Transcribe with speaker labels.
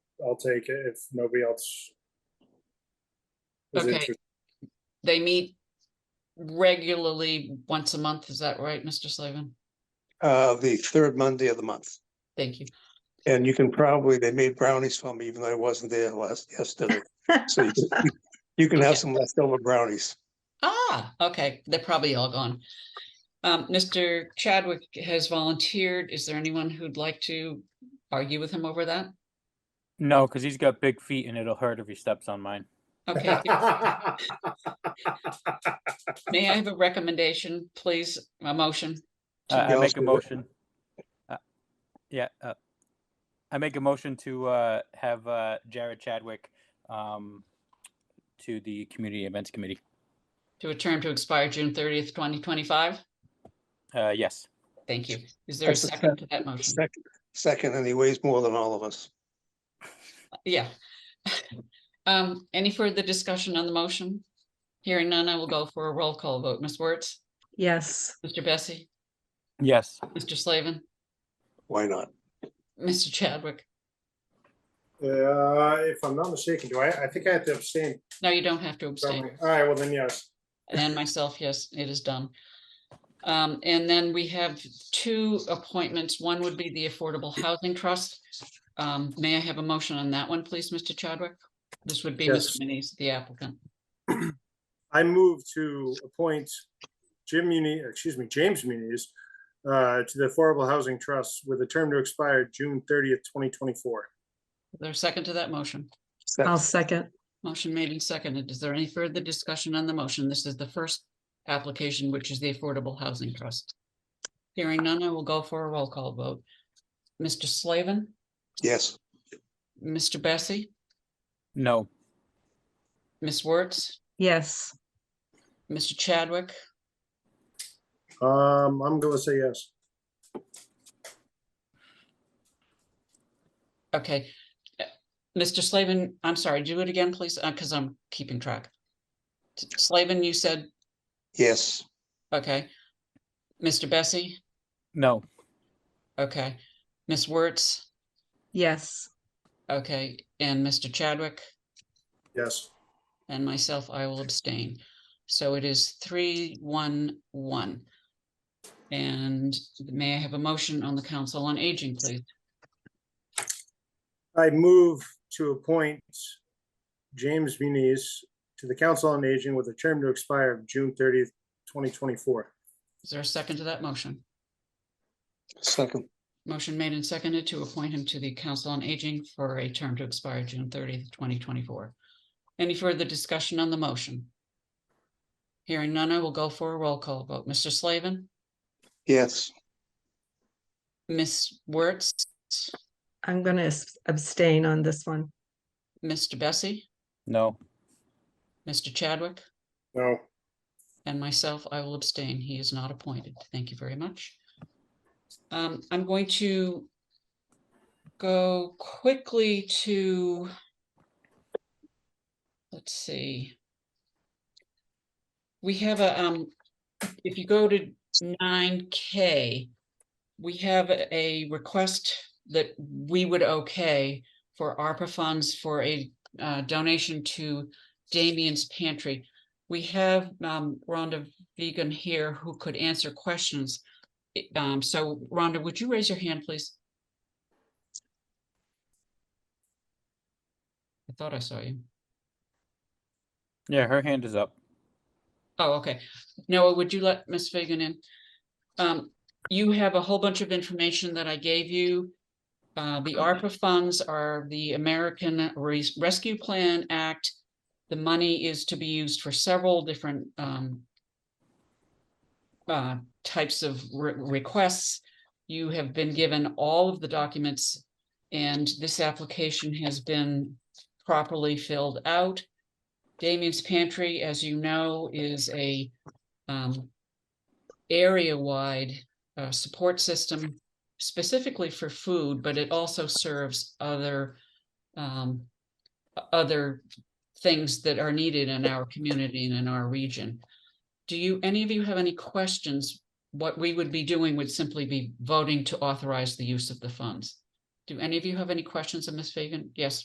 Speaker 1: I'll take it if nobody else. is
Speaker 2: Okay.
Speaker 1: interested.
Speaker 2: They meet regularly once a month, is that right, Mr. Slavin?
Speaker 3: uh, the third Monday of the month.
Speaker 2: Thank you.
Speaker 3: And you can probably, they made brownies for me, even though I wasn't there last, yesterday. So you can- you can have some leftover brownies.
Speaker 2: Ah, okay, they're probably all gone. Um, Mr. Chadwick has volunteered. Is there anyone who'd like to argue with him over that?
Speaker 4: No, because he's got big feet and it'll hurt if he steps on mine.
Speaker 2: Okay, may I have a recommendation, please, a motion?
Speaker 4: Uh, I
Speaker 3: Somebody else
Speaker 4: make a
Speaker 3: do it.
Speaker 4: motion. uh, Yeah, uh, I make a motion to uh, have uh, Jared Chadwick um, to the Community Events Committee.
Speaker 2: To a term to expire June thirtieth, twenty twenty-five?
Speaker 4: Uh, Yes.
Speaker 2: Thank you. Is there a
Speaker 3: That's a
Speaker 2: second to that motion?
Speaker 3: Second- Second, and he weighs more than all of us.
Speaker 2: Yeah. Um, any further discussion on the motion? Hearing none, I will go for a roll call vote. Ms. Wertz,
Speaker 5: Yes,
Speaker 2: Mr. Bessie,
Speaker 4: Yes.
Speaker 2: Mr. Slavin,
Speaker 3: Why not?
Speaker 2: Mr. Chadwick.
Speaker 1: Uh, if I'm not mistaken, do I, I think I have to abstain.
Speaker 2: No, you don't have to abstain.
Speaker 1: don't I? All right, well then, yes.
Speaker 2: And myself, yes, it is done. Um, and then we have two appointments. One would be the Affordable Housing Trust. Um, may I have a motion on that one, please, Mr. Chadwick? This would be
Speaker 1: Yes.
Speaker 2: Mr. Manise, the applicant.
Speaker 1: I move to appoint Jim Muni, excuse me, James Muniz uh, to the Affordable Housing Trust with a term to expire June thirtieth, twenty twenty-four.
Speaker 2: Is there a second to that motion?
Speaker 3: Sec-
Speaker 5: I'll second.
Speaker 2: Motion made and seconded. Is there any further discussion on the motion? This is the first application, which is the Affordable Housing Trust. Hearing none, I will go for a roll call vote. Mr. Slavin,
Speaker 3: Yes,
Speaker 2: Mr. Bessie,
Speaker 4: No.
Speaker 2: Ms. Wertz,
Speaker 5: Yes,
Speaker 2: Mr. Chadwick,
Speaker 1: Um, I'm gonna say yes.
Speaker 2: okay. Uh, Mr. Slavin, I'm sorry, do it again, please, because I'm keeping track. S- Slavin, you said,
Speaker 3: yes,
Speaker 2: okay. Mr. Bessie,
Speaker 4: No.
Speaker 2: okay. Ms. Wertz,
Speaker 5: yes,
Speaker 2: okay, and Mr. Chadwick?
Speaker 1: Yes.
Speaker 2: And myself, I will abstain. So it is three, one, one. And may I have a motion on the Council on Aging, please?
Speaker 1: I move to appoint James Muniz to the Council on Aging with a term to expire of June thirtieth, twenty twenty-four.
Speaker 2: Is there a second to that motion?
Speaker 3: second,
Speaker 2: Motion made and seconded to appoint him to the Council on Aging for a term to expire June thirtieth, twenty twenty-four. Any further discussion on the motion? Hearing none, I will go for a roll call vote. Mr. Slavin,
Speaker 3: yes,
Speaker 2: Ms. Wertz,
Speaker 5: I'm gonna s- abstain on this one.
Speaker 2: Mr. Bessie,
Speaker 4: No.
Speaker 2: Mr. Chadwick?
Speaker 1: No,
Speaker 2: And myself, I will abstain. He is not appointed. Thank you very much. Um, I'm going to go quickly to, let's see. We have a, um, if you go to nine K, we have a a request that we would okay for ARPA funds for a uh, donation to Damien's Pantry. We have um, Rhonda Vegan here who could answer questions. I- um, So Rhonda, would you raise your hand, please? I thought I saw you.
Speaker 4: Yeah, her hand is up.
Speaker 2: Oh, okay. Noah, would you let Ms. Fagan in? Um, you have a whole bunch of information that I gave you. Uh, the ARPA funds are the American Res- Rescue Plan Act. The money is to be used for several different, um, uh, types of re- requests. You have been given all of the documents and this application has been properly filled out. Damien's Pantry, as you know, is a um area-wide uh support system specifically for food, but it also serves other um o- other things that are needed in our community and in our region. Do you, any of you have any questions? What we would be doing would simply be voting to authorize the use of the funds. Do any of you have any questions of Ms. Fagan? Yes,